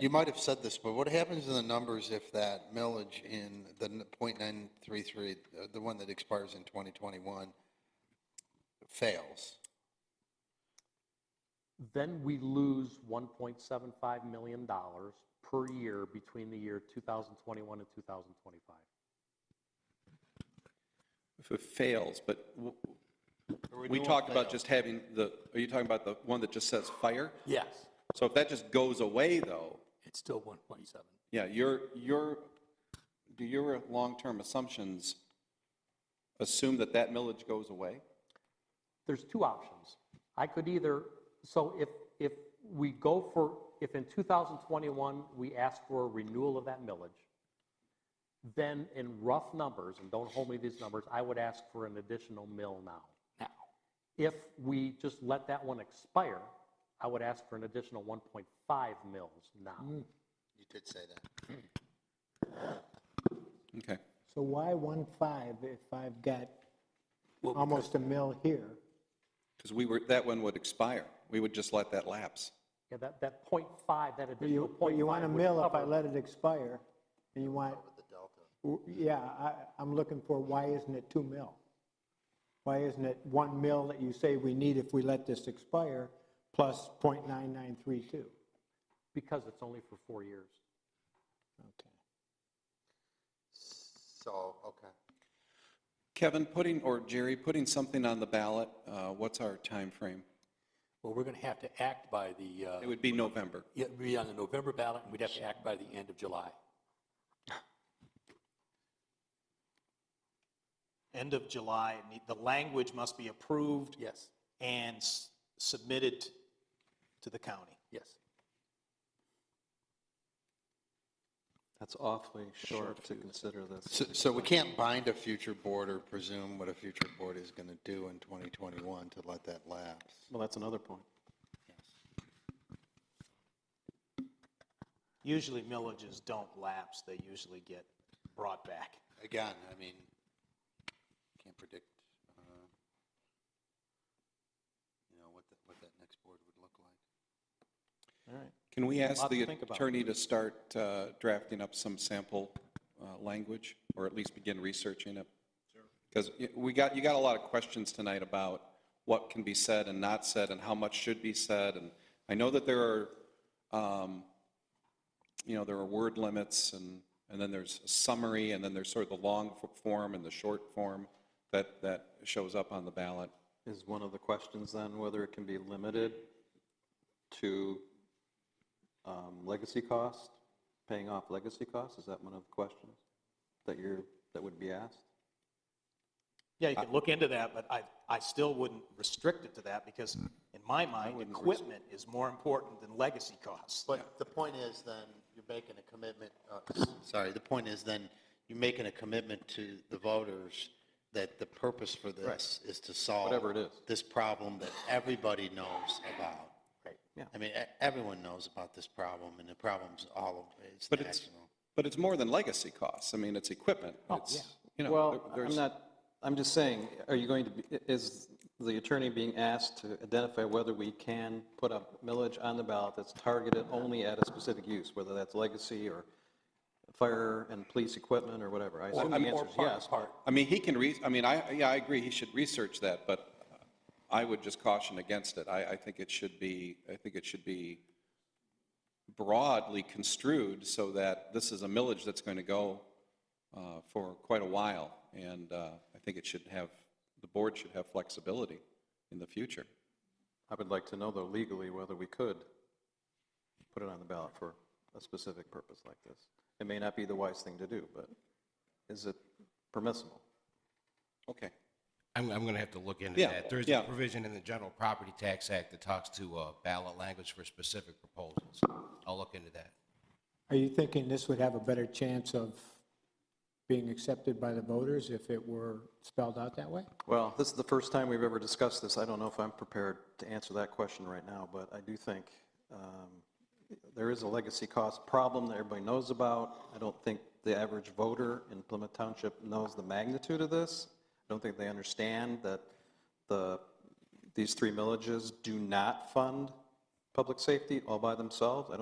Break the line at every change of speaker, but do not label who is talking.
You might have said this, but what happens to the numbers if that millage in the n- .933, uh, the one that expires in 2021, fails?
Then we lose $1.75 million per year between the year 2021 and 2025.
If it fails, but w-
Or we
we
do
talked
want
about just having the, are you talking about the one that just says fire?
Yes,
So if that just goes away though,
it's still 1.7.
yeah, your, your, do your long-term assumptions assume that that millage goes away?
There's two options. I could either, so if, if we go for, if in 2021, we ask for a renewal of that millage, then in rough numbers, and don't hold me to these numbers, I would ask for an additional mill now.
Now,
If we just let that one expire, I would ask for an additional 1.5 mills
Mm.
now.
You did say that.
Okay.
So why one five if I've got almost a mill here?
Because we were, that one would expire. We would just let that lapse.
Yeah, that, that point five, that
But
additional
you,
point
but
five.
you want a mill if I
would
let it expire, and you want. W- Yeah, I, I'm looking for, why isn't it two mill? Why isn't it one mill that you say we need if we let this expire, plus point nine nine three two?
cover- Because it's only for four years.
Okay.
So, okay.
Kevin, putting, or Jerry, putting something on the ballot, uh, what's our time frame?
well, we're going to have to act by the, uh,
It would be November.
yeah, it'd be on the November ballot, and we'd have to act by the end of July.
end of July, it need- the language must be approved
Yes,
and s- submitted to the county.
yes.
That's awfully short to consider this.
So, so we can't bind a future board or presume what a future board is going to do in 2021 to let that lapse?
Well, that's another point.
Usually millages don't lapse, they usually get brought back.
Again, I mean, can't predict, uh, you know, what, the- what that next board would look like.
All right.
Can we ask
Lot to
the
think about.
attorney to start uh, drafting up some sample uh, language, or at least begin researching it? Because we got, you got a lot of questions tonight about what can be said and not said, and how much should be said, and I know that there are, um, you know, there are word limits, and, and then there's a summary, and then there's sort of the long f- form and the short form that, that shows up on the ballot.
Is one of the questions then whether it can be limited to um, legacy cost, paying off legacy costs? Is that one of the questions that you're, that would be asked?
Yeah, you could look into that, but I, I still wouldn't restrict it to that because in my mind, equipment is more important than legacy costs.
But the point is then, you're making a commitment, uh, s- sorry, the point is then, you're making a commitment to the voters that the purpose for this is to solve.
Whatever it is.
This problem that everybody knows about. Right.
Yeah.
I mean, e- everyone knows about this problem and the problem's all, of- it's
But it's,
national.
but it's more than legacy costs. I mean, it's equipment. It's, you know,
Oh, Well,
there-
I'm
there's-
not, I'm just saying, are you going to, be is the attorney being asked to identify whether we can put up millage on the ballot that's targeted only at a specific use, whether that's legacy or fire and police equipment or whatever? I assume the
I'm- or
answer is yes. but-
I mean, he can re, I mean, I, yeah, I agree, he should research that, but I would just caution against it. I, I think it should be, I think it should be broadly construed so that this is a millage that's going to go uh, for quite a while, and uh, I think it should have, the board should have flexibility in the future.
I would like to know, though, legally, whether we could put it on the ballot for a specific purpose like this. It may not be the wise thing to do, but is it permissible?
Okay.
I'm, I'm going to have to look into
Yeah,
that. There's
yeah.
a provision in the General Property Tax Act that talks to uh, ballot language for specific proposals. I'll look into that.
Are you thinking this would have a better chance of being accepted by the voters if it were spelled out that way?
Well, this is the first time we've ever discussed this. I don't know if I'm prepared to answer that question right now, but I do think um, there is a legacy cost problem that everybody knows about. I don't think the average voter in Plymouth Township knows the magnitude of this. I don't think they understand that the, these three millages do not fund public safety all by themselves. I